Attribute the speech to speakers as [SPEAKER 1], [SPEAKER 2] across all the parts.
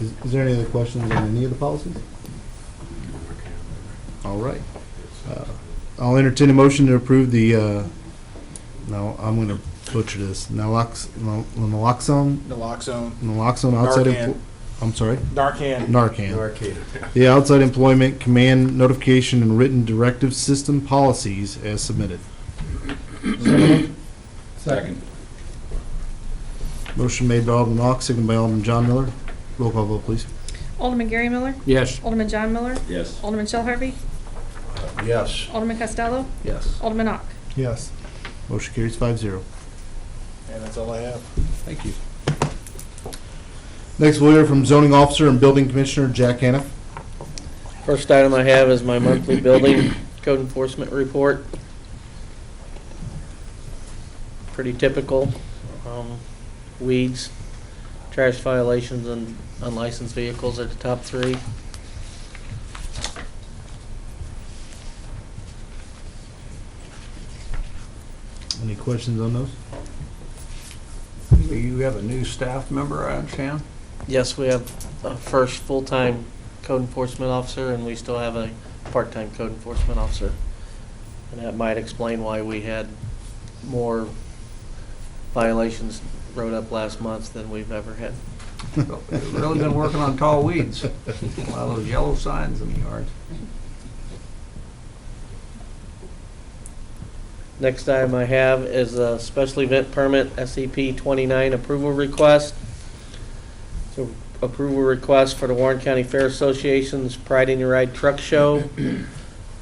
[SPEAKER 1] Is is there any other questions on any of the policies? All right. Uh, I'll entertain a motion to approve the, uh, no, I'm going to butcher this, nalox- nal- naloxone,
[SPEAKER 2] Naloxone,
[SPEAKER 1] naloxone outside. empl-
[SPEAKER 2] Narcan.
[SPEAKER 1] I'm sorry,
[SPEAKER 2] Narcan.
[SPEAKER 1] Narcan. The outside employment command notification and written directive system policies as submitted.
[SPEAKER 3] Second.
[SPEAKER 1] Motion made by Alderman Ock, seconded by Alderman John Miller. Roll call vote, please.
[SPEAKER 4] Alderman Gary Miller.
[SPEAKER 3] Yes.
[SPEAKER 4] Alderman John Miller.
[SPEAKER 3] Yes.
[SPEAKER 4] Alderman Shell Harvey.
[SPEAKER 3] Yes.
[SPEAKER 4] Alderman Costello.
[SPEAKER 3] Yes.
[SPEAKER 4] Alderman Ock.
[SPEAKER 1] Yes. Motion carries five zero.
[SPEAKER 2] And that's all I have.
[SPEAKER 3] Thank you.
[SPEAKER 1] Next, we'll hear from zoning officer and building commissioner Jack Haniff.
[SPEAKER 5] First item I have is my monthly building code enforcement report. Pretty typical. um, Weeds, trash violations, and unlicensed vehicles are the top three.
[SPEAKER 1] Any questions on those?
[SPEAKER 3] You have a new staff member, I understand?
[SPEAKER 5] Yes, we have a first full-time code enforcement officer, and we still have a part-time code enforcement officer. And that might explain why we had more violations wrote up last month than we've ever had.
[SPEAKER 3] Really been working on tall weeds, a lot of those yellow signs in the yards.
[SPEAKER 5] Next item I have is a special event permit, SCP 29 approval request. So approval request for the Warren County Fair Association's Pride in Your Ride Truck Show,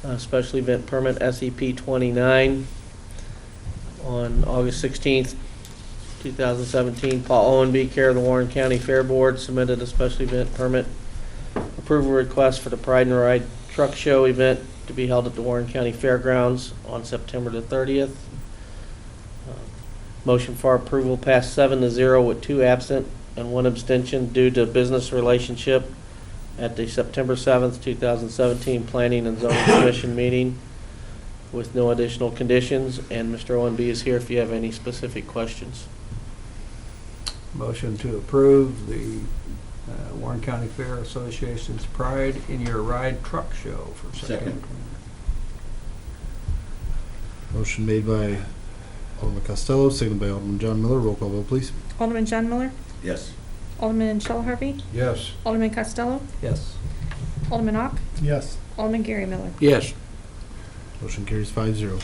[SPEAKER 5] uh, special event permit, SCP 29, on August 16th, 2017. Paul Owenby, care of the Warren County Fair Board, submitted a special event permit approval request for the Pride and Ride Truck Show event to be held at the Warren County Fairgrounds on September the thirtieth. Uh, Motion for approval passed seven to zero with two absent and one abstention due to business relationship at the September seventh, two thousand seventeen Planning and Zoning Commission meeting with no additional conditions, and Mr. Owen B. is here if you have any specific questions.
[SPEAKER 3] Motion to approve the uh, Warren County Fair Association's Pride in Your Ride Truck Show for September.
[SPEAKER 1] Motion made by Alderman Costello, seconded by Alderman John Miller. Roll call vote, please.
[SPEAKER 4] Alderman John Miller.
[SPEAKER 3] Yes.
[SPEAKER 4] Alderman Shell Harvey.
[SPEAKER 3] Yes.
[SPEAKER 4] Alderman Costello.
[SPEAKER 3] Yes.
[SPEAKER 4] Alderman Ock.
[SPEAKER 1] Yes.
[SPEAKER 4] Alderman Gary Miller.
[SPEAKER 3] Yes.
[SPEAKER 1] Motion carries five zero.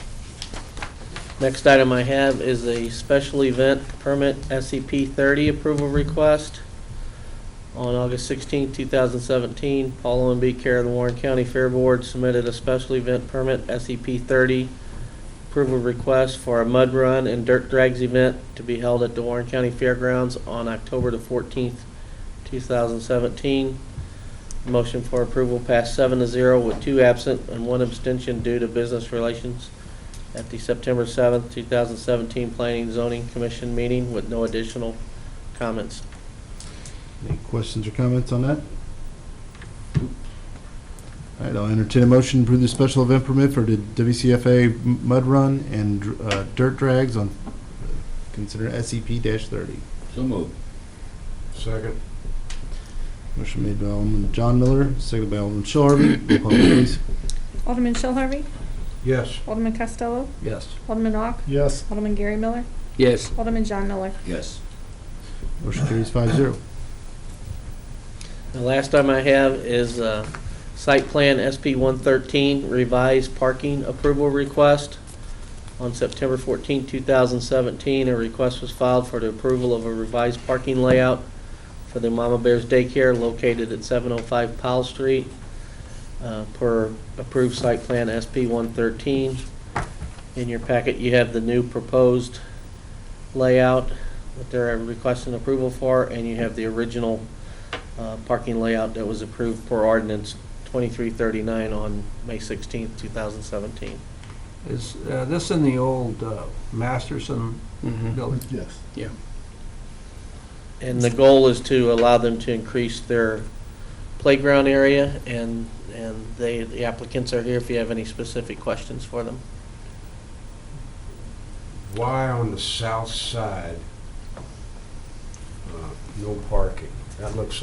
[SPEAKER 5] Next item I have is a special event permit SCP-30 approval request. On August 16, 2017, Paul Owen B. Care of the Warren County Fair Board submitted a special event permit SCP-30 approval request for a mud run and dirt drags event to be held at the Warren County Fairgrounds on October the 14th, 2017. Motion for approval passed seven to zero with two absent and one abstention due to business relations at the September seventh, two thousand seventeen Planning and Zoning Commission meeting with no additional comments.
[SPEAKER 1] Any questions or comments on that? All right, I'll entertain a motion to approve the special event permit for the WCFA m- mud run and uh, dirt drags on, consider SCP thirty.
[SPEAKER 3] So moved.
[SPEAKER 2] Second.
[SPEAKER 1] Motion made by Alderman John Miller, seconded by Alderman Shell Harvey. Roll call vote, please.
[SPEAKER 4] Alderman Shell Harvey.
[SPEAKER 3] Yes.
[SPEAKER 4] Alderman Costello.
[SPEAKER 3] Yes.
[SPEAKER 4] Alderman Ock.
[SPEAKER 1] Yes.
[SPEAKER 4] Alderman Gary Miller.
[SPEAKER 3] Yes.
[SPEAKER 4] Alderman John Miller.
[SPEAKER 3] Yes.
[SPEAKER 1] Motion carries five zero.
[SPEAKER 5] The last item I have is uh, Site Plan SP 113 Revised Parking Approval Request. On September 14, 2017, a request was filed for the approval of a revised parking layout for the Mama Bears Daycare located at 705 Powell Street uh, per approved Site Plan SP 113. In your packet, you have the new proposed layout that they're requesting approval for, and you have the original uh, parking layout that was approved per ordinance 2339 on May 16th, 2017.
[SPEAKER 3] Is uh, this in the old uh, Masterson building?
[SPEAKER 1] Yes.
[SPEAKER 5] And the goal is to allow them to increase their playground area, and, and they, the applicants are here if you have any specific questions for them.
[SPEAKER 6] why on the south side, uh, no parking? That looks